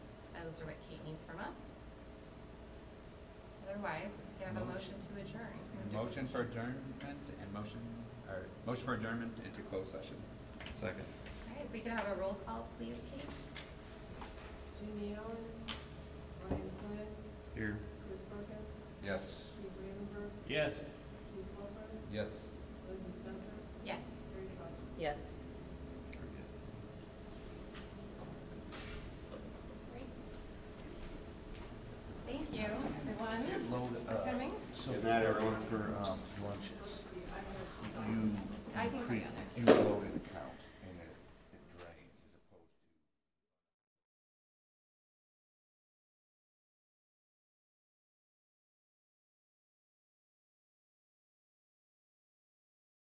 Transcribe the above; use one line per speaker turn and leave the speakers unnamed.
those are what Kate needs from us. Otherwise, we could have a motion
Motion.
to adjourn.
Motion for adjournment and motion, or motion for adjournment into closed session.
Second.
All right, if we could have a roll call, please, Kate?